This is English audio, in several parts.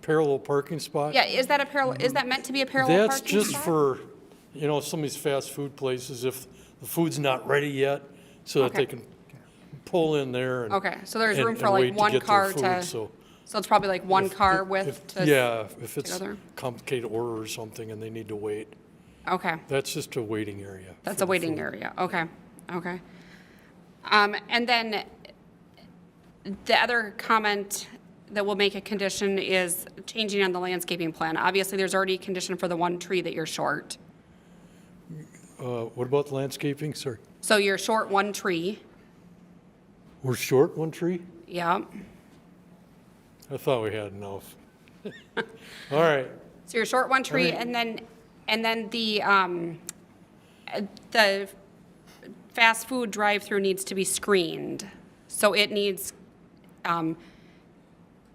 parallel parking spot. Yeah, is that a parallel, is that meant to be a parallel That's parking just spot? for, you know, some of these fast food places, if the food's not ready yet, so that Okay. they can pull in there and. Okay, so there's and- room for and like wait to one get their car food, to- so So it's probably like one if- car if- width if- to? Yeah, if it's other? complicated order or something and they need to wait, Okay, that's just a waiting area. that's for a the waiting food. area, okay, okay. Um, and then the other comment that will make a condition is changing on the landscaping plan. Obviously, there's already a condition for the one tree that you're short. Uh, what about landscaping, sir? So you're short one tree, We're short one tree? yeah. I thought we had enough. All right, So you're short one tree, Alright. and then, and then the, um, uh, the fast food drive-through needs to be screened. So it needs, um,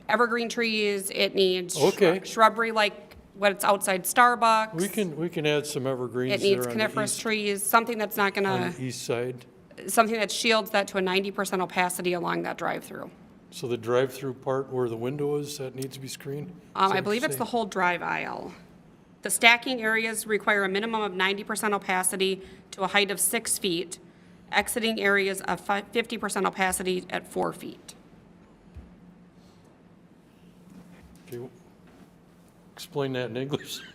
evergreen trees, it needs shrub- Okay. shrubbery like what's outside Starbucks. we can, we can add some evergreens It there needs on the coniferous uh, east, trees, something that's not on gonna, the e east side. something that shields that to a ninety percent opacity along that drive-through. So the drive-through part where the window is, that needs to be screened? Is Um, that I what believe you're it's the saying? whole drive aisle. The stacking areas require a minimum of ninety percent opacity to a height of six feet, exiting areas of fifty percent opacity at four feet. Okay, Explain that in English.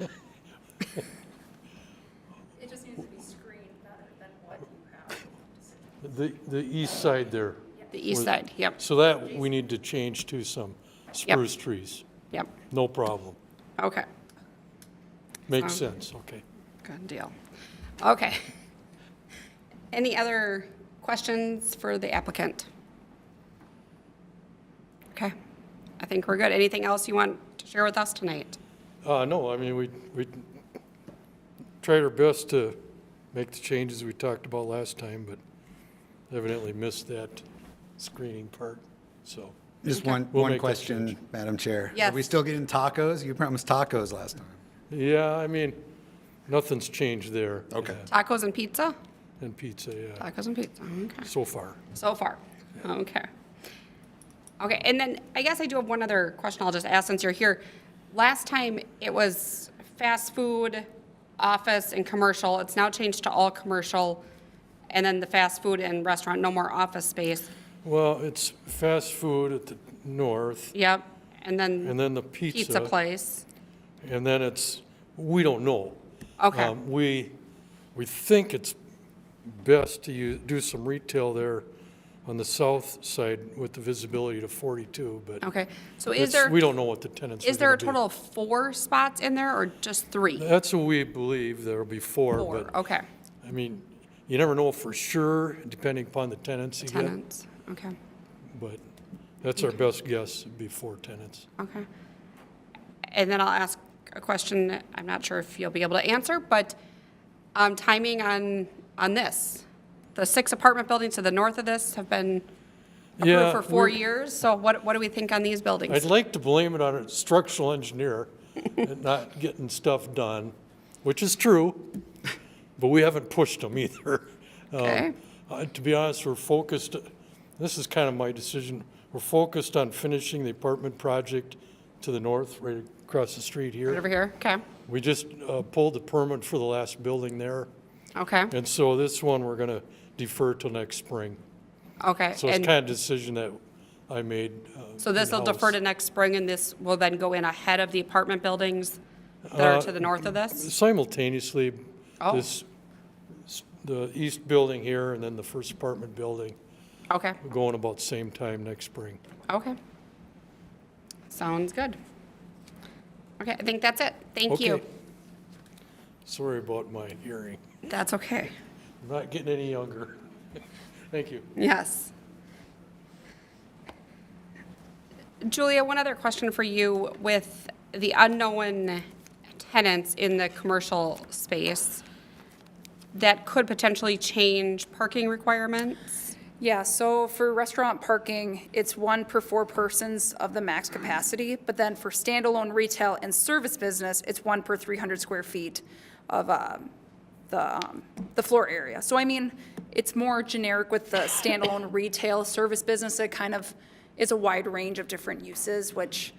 It just needs to be screened better than what you have. The, the east side there. The east Where- side, yep, So that we need to change to some spruce trees. yep, No problem. okay, Makes Um, sense, okay. good deal. Okay. Any other questions for the applicant? Okay, I think we're good. Anything else you want to share with us tonight? Uh, no, I mean, we, we tried our best to make the changes we talked about last time, but evidently missed that screening part, so. Just one, We'll one make that question, Madam Chair. Are we Yes. still getting tacos? You promised tacos last time. Yeah, I mean, nothing's changed there. Okay. yeah, Tacos and pizza? And pizza, yeah, Tacos and pizza, okay. so far. So far, okay. Okay, and then I guess I do have one other question I'll just ask since you're here. Last time, it was fast food, office, and commercial. It's now changed to all commercial, and then the fast food and restaurant, no more office space. Well, it's fast food at the north, Yep, and and then then the pizza place. And then it's, we don't know. Okay. Um, We, we think it's best to u- do some retail there on the south side with the visibility to 42, but Okay, so Oh, is it's, there, we don't know what the tenants are is there a going to total of four spots in there or just three? That's what we believe, there'll be four, Four, oh. but, okay, I mean, you never know for sure, depending upon the tenants you get. tenants, okay. But that's our best guess, it'd be four tenants. Okay. And then I'll ask a question, I'm not sure if you'll be able to answer, but um, timing on, on this. The six apartment buildings to the north of this have been Yeah, approved for four we're- years, so what, what do we think on these I'd buildings? like to blame it on a structural engineer and not getting stuff done, which is true, but we haven't pushed them either. Um, Okay. uh, To be honest, we're focused, this is kind of my decision, we're focused on finishing the apartment project to the north, right across the street Right here. Over here, okay, We just uh, pulled the permit for the last building there, okay, and so this one, we're going to defer till next spring. okay. So it's And kind of decision that I made. uh, So this will defer in-house. to next spring, and this will then go in ahead of the apartment buildings that are to the Uh, north of this? simultaneously, Oh. this, the east building here and then the first apartment building Okay, going about same time next spring. okay. Sounds good. Okay, I think that's it, thank you. Okay. Sorry about my hearing. That's okay. I'm not getting any younger. Thank you. Yes. Julia, one other question for you with the unknown tenants in the commercial space that could potentially change parking requirements? Yeah, so for restaurant parking, it's one per four persons of the max capacity, but then for standalone retail and service business, it's one per 300 square feet of um, the, um, the floor area. So I mean, it's more generic with the standalone retail service business, it kind of is a wide range of different uses, which